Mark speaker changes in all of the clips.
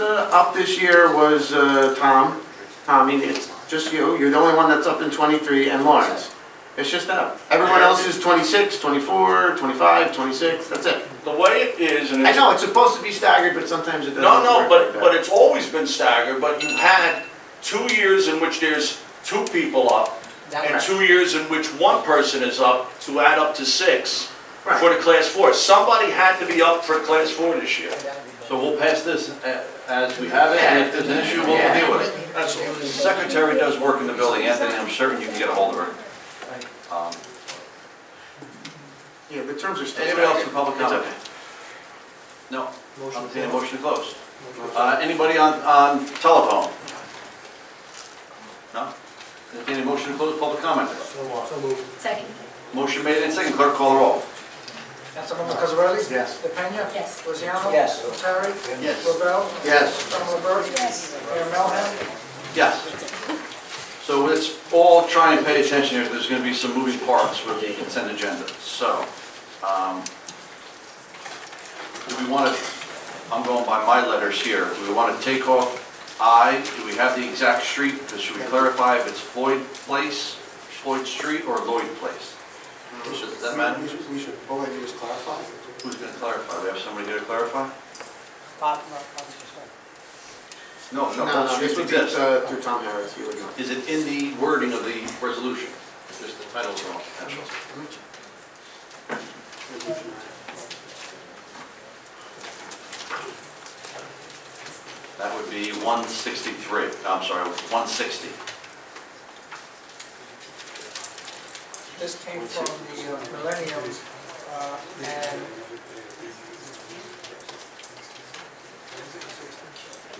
Speaker 1: uh, up this year was uh, Tom. Tommy, it's just you, you're the only one that's up in 23, and Lawrence. It's just that. Everyone else is 26, 24, 25, 26, that's it.
Speaker 2: The way it is, and
Speaker 1: I
Speaker 2: it's,
Speaker 1: know, it's supposed to be staggered, but sometimes it doesn't.
Speaker 2: no, no,
Speaker 1: work
Speaker 2: but,
Speaker 1: like
Speaker 2: but
Speaker 1: that.
Speaker 2: it's always been staggered, but you had two years in which there's two people up, and
Speaker 1: Right.
Speaker 2: two years in which one person is up to add up to six
Speaker 1: Right.
Speaker 2: for the class four. Somebody had to be up for class four this year.
Speaker 3: So we'll pass this a- as we have it, and if there's an issue, we'll deal with it.
Speaker 2: That's all.
Speaker 3: The
Speaker 4: Secretary does work in the building, Anthony, I'm certain you can get a hold of her. Um,
Speaker 1: Yeah, the terms are still
Speaker 3: Anybody else for
Speaker 1: staggered.
Speaker 3: public comment? No, I'll entertain a motion to close. Uh, Anybody on, on telephone? No? Entertain a motion to close public comment.
Speaker 5: Second,
Speaker 3: Motion made and second, clerk call the roll.
Speaker 6: Councilmember Cosarelli?
Speaker 1: Yes.
Speaker 6: DePena?
Speaker 5: yes.
Speaker 6: Rosiano?
Speaker 7: Yes.
Speaker 6: Notari?
Speaker 3: Yes.
Speaker 6: Lavelle?
Speaker 1: Yes.
Speaker 6: Councilmember Burke?
Speaker 5: Yes.
Speaker 6: Mayor Melham?
Speaker 3: Yes. So let's all try and pay attention here, there's gonna be some moving parts with the consent agenda, so, um, do we wanna, I'm going by my letters here, do we wanna take off I, do we have the exact street, should we clarify if it's Floyd Place, Floyd Street, or Lloyd Place? Should that matter?
Speaker 8: We should,
Speaker 1: oh,
Speaker 8: all I do is clarify.
Speaker 3: Who's gonna clarify, we have somebody here to clarify? No,
Speaker 1: No,
Speaker 3: no,
Speaker 1: no,
Speaker 3: Floyd
Speaker 1: this
Speaker 3: Street
Speaker 1: would be
Speaker 3: exists.
Speaker 1: uh, through Tom Harris, he would know.
Speaker 3: Is it in the wording of the resolution? Just the title's wrong, that's all. That would be 163, I'm sorry, 160.
Speaker 6: This came from the uh, Millennium, uh, and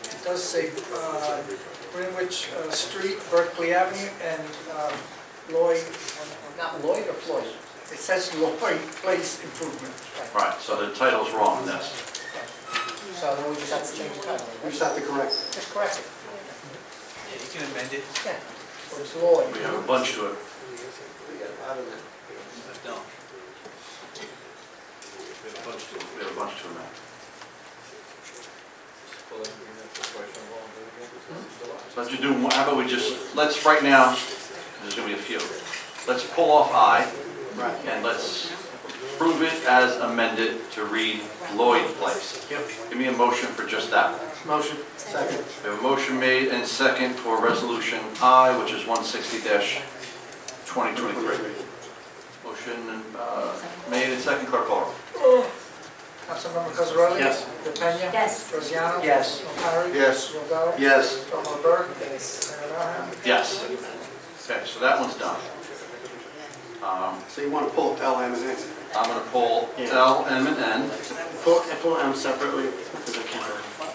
Speaker 6: it does say uh, Greenwich uh, Street, Berkeley Avenue, and uh, Lloyd, not Lloyd or Floyd? It says Lloyd Place Improvement.
Speaker 3: Right, so the title's wrong in this.
Speaker 7: So then we just have to change the title.
Speaker 8: We just have to correct. it.
Speaker 6: Just correct it.
Speaker 7: Yeah, you can amend it.
Speaker 6: Yeah. Or it's Lloyd.
Speaker 3: We have a bunch to it.
Speaker 7: No.
Speaker 3: We have a bunch to it. We have a bunch to amend. So let's just do, one- how about we just, let's, right now, there's gonna be a few. Let's pull off I, and let's prove it as amended to read Lloyd Place. Give me a motion for just that one.
Speaker 1: Motion?
Speaker 8: Second.
Speaker 3: We have a motion made and second for resolution I, which is one sixty twenty twenty-three. Motion, uh, made and second, clerk call.
Speaker 6: Councilmember Cosarelli?
Speaker 1: Yes.
Speaker 6: DePena?
Speaker 5: Yes.
Speaker 6: Rosiano?
Speaker 7: Yes.
Speaker 6: Notari?
Speaker 1: Yes.
Speaker 6: Robel?
Speaker 1: Yes.
Speaker 6: Councilmember Burke? Yes. Mayor Melham?
Speaker 3: Yes. Okay, so that one's done. Um,
Speaker 8: So you want to pull L, M, and N.
Speaker 3: I'm gonna pull L, M, and N,
Speaker 1: Pull, pull M separately, because I can't. remember.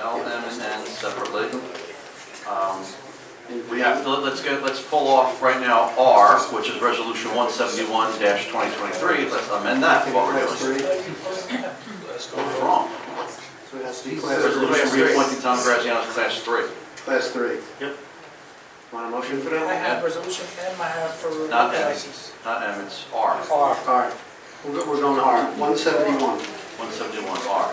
Speaker 3: L, M, and N separately. Um, We have, to- let's go, let's pull off right now R, which is resolution one seventy-one twenty twenty-three. Let's amend that while we're
Speaker 8: Class
Speaker 3: doing it.
Speaker 8: three,
Speaker 3: What's wrong?
Speaker 8: so it has to be
Speaker 3: Resolution
Speaker 8: class three.
Speaker 3: reappointing Tom Graziano as class three.
Speaker 8: Class three.
Speaker 1: Want a motion for
Speaker 6: I
Speaker 1: that?
Speaker 6: have resolution M, I have for
Speaker 3: Not M.
Speaker 6: license.
Speaker 3: Not M, it's R,
Speaker 7: R.
Speaker 1: All right, we're go- we're going to
Speaker 8: R,
Speaker 1: R.
Speaker 8: one seventy-one.
Speaker 3: one seventy-one R.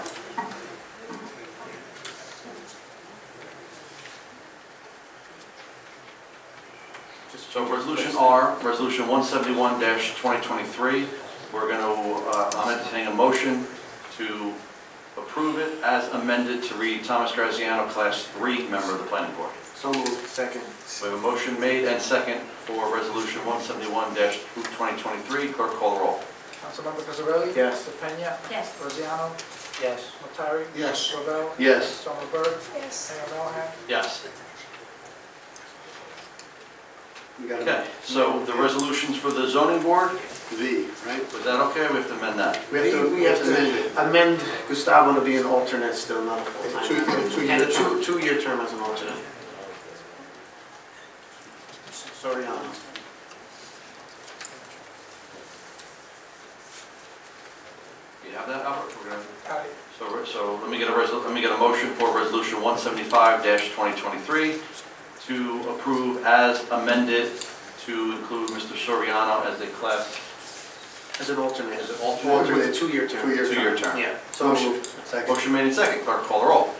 Speaker 3: So resolution R, resolution one seventy-one twenty twenty-three, we're gonna, uh, I'm entertaining a motion to approve it as amended to read Thomas Graziano, class three member of the planning board.
Speaker 1: So moved, second.
Speaker 3: We have a motion made and second for resolution one seventy-one twenty twenty-three, clerk call the roll.
Speaker 6: Councilmember Cosarelli?
Speaker 1: Yes.
Speaker 6: DePena?
Speaker 5: Yes.
Speaker 6: Rosiano?
Speaker 7: Yes.
Speaker 6: Notari?
Speaker 8: Yes.
Speaker 6: Robel?
Speaker 3: Yes.
Speaker 6: Councilmember Burke?
Speaker 5: Yes.
Speaker 6: Mayor Melham?
Speaker 3: Yes.
Speaker 8: You got
Speaker 3: Okay,
Speaker 8: it.
Speaker 3: so the resolutions for the zoning board,
Speaker 8: V, right?
Speaker 3: was that okay? We have to amend that.
Speaker 1: We have to, we have to amend Gustavo to be an alternate still, not a
Speaker 8: Two-
Speaker 1: full-time.
Speaker 8: a two-year
Speaker 1: And a
Speaker 8: term.
Speaker 1: two, two-year term as an alternate. Soriano.
Speaker 3: You have that, Albert? We're gonna-
Speaker 6: Got it.
Speaker 3: So, re- so let me get a resol, let me get a motion for resolution one seventy-five twenty twenty-three to approve as amended to include Mr. Soriano as a class
Speaker 1: As an alternate.
Speaker 3: As an alternate.
Speaker 1: Alternate, two-year term.
Speaker 8: Two-year
Speaker 3: two-year term.
Speaker 1: Yeah.
Speaker 8: So moved. Second.
Speaker 3: Motion made in second, clerk call the roll.